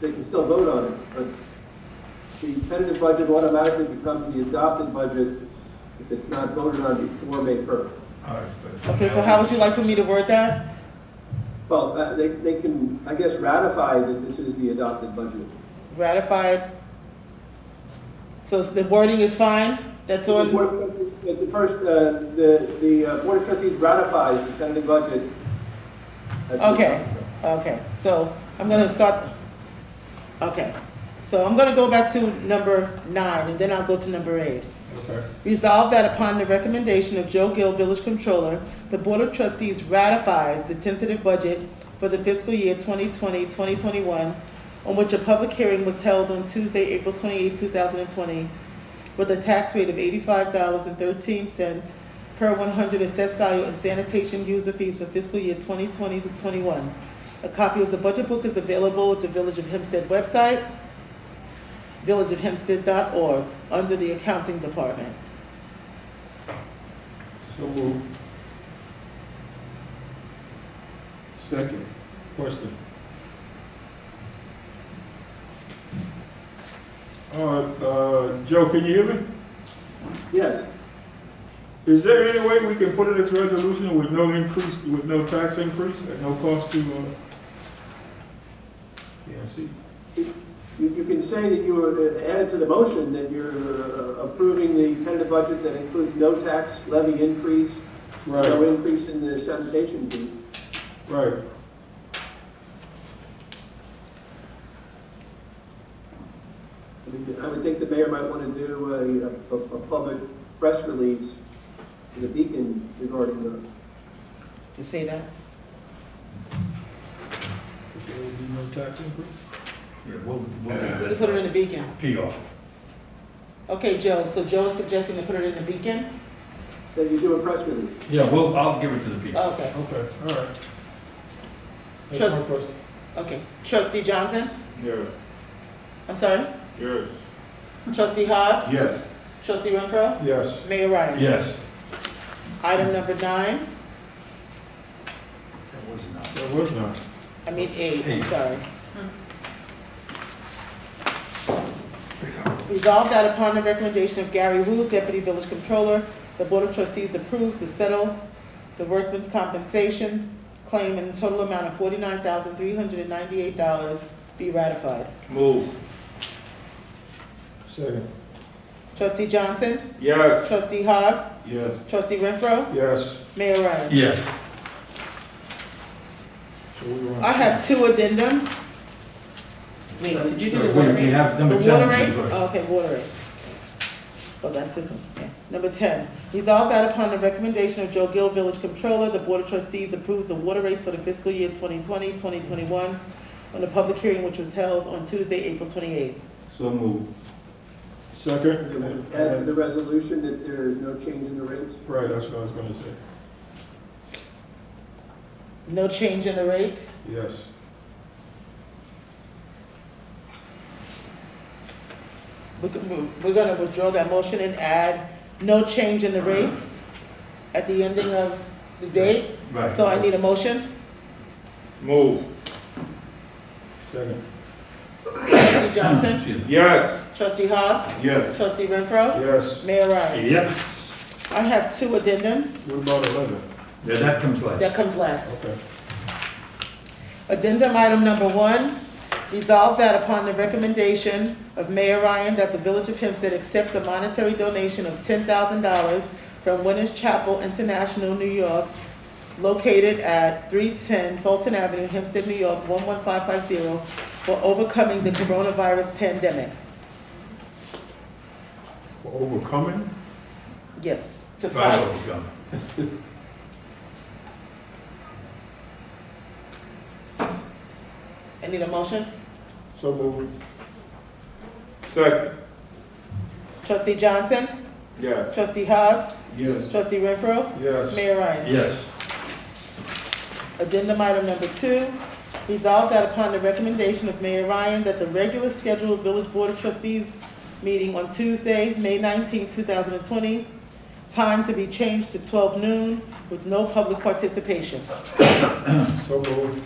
they can still vote on it, but the tentative budget automatically becomes the adopted budget if it's not voted on before May first. All right, but- Okay, so how would you like for me to word that? Well, uh, they, they can, I guess, ratify that this is the adopted budget. Ratified? So the wording is fine? That's The on, Board of Trustees- uh, the first, uh, the, the uh, Board of Trustees ratifies the tentative budget. as the okay, adopted. okay. So I'm gonna start, okay. So I'm gonna go back to number nine, and then I'll go to number eight. Okay. Resolved that upon the recommendation of Joe Gill, Village Controller, the Board of Trustees ratifies the tentative budget for the fiscal year 2020, 2021, on which a public hearing was held on Tuesday, April 28, 2020, with a tax rate of $85.13 per 100 assessed value and sanitation user fees for fiscal year 2020 to 21. A copy of the budget book is available at the Village of Hempstead website, villageofhempstead.org, under the Accounting Department. So move. Second. Question. Uh, uh, Joe, can you hear me? Yes. Is there any way we can put in this resolution with no increase, with no tax increase, at no cost to, uh, PNC? You, you can say that you were uh, added to the motion that you're uh, approving the tentative budget that includes no tax levy increase, no Right, increase in the sanitation fee. right. I mean, I would think the mayor might want to do a- a, a public press release to the Beacon regarding the, to say that? There will be no tax increase? Yeah, what would, what You would put it that in the beacon. PR? Okay, Joe, so Joe is suggesting to put it in the beacon? that you do a press release. Yeah, well, I'll give it to the people. Oh, Okay, Okay, all right. That's Trust- my question. okay. Trustee Johnson? Yeah, I'm sorry? yeah. Trustee Hobbs? Yes. Trustee Renfro? Yes. Mayor Ryan? Yes. Item number nine, That was not. There was none. I mean eight, I'm Eight. sorry. Resolved that upon the recommendation of Gary Wu, Deputy Village Controller, the Board of Trustees approves to settle the workman's compensation claim in a total amount of forty-nine thousand, three hundred and ninety-eight dollars be ratified. Move. Second. Trustee Johnson? Yes. Trustee Hobbs? Yes. Trustee Renfro? Yes. Mayor Ryan? Yes. So we want- I have two addendums. Wait, did you do the Wait, water we rates? have number The 10 water rate? first. Oh, Okay, water rate. Oh, that's this one, yeah. Number ten, resolved that upon the recommendation of Joe Gill, Village Controller, the Board of Trustees approves the water rates for the fiscal year 2020, 2021 on the public hearing which was held on Tuesday, April twenty-eighth. So move. Second. Add to the resolution that there is no change in the rates. Right, that's what I was gonna say. No change in the rates. Yes. We could move- We're gonna withdraw that motion and add no change in the rates at the ending of the date. Right. Oh, So I need a motion. Move. Second. Trustee Johnson, Excuse me. Yes. trustee Hobbs, Yes. trustee Renfro, Yes. mayor Ryan. Yes. I have two addendums What about eleven? Yeah, that comes last. that comes last. Okay. Addendum item number one, resolve that upon the recommendation of Mayor Ryan that the Village of Hempstead accepts a monetary donation of ten thousand dollars from Winners Chapel International, New York, located at three ten Fulton Avenue, Hempstead, New York, one one five five zero, for overcoming the coronavirus pandemic. For overcoming? Yes, to Right, fight. overcome. I need a motion. So move. Second. Trustee Johnson, Yes. trustee Hobbs, Yes. Trustee Renfro, Yes. Mayor Ryan. Yes. Addendum item number two, resolve that upon the recommendation of Mayor Ryan that the regular scheduled Village Board of Trustees meeting on Tuesday, May 19, thousand and twenty, time to be changed to twelve noon with no public participation. So move.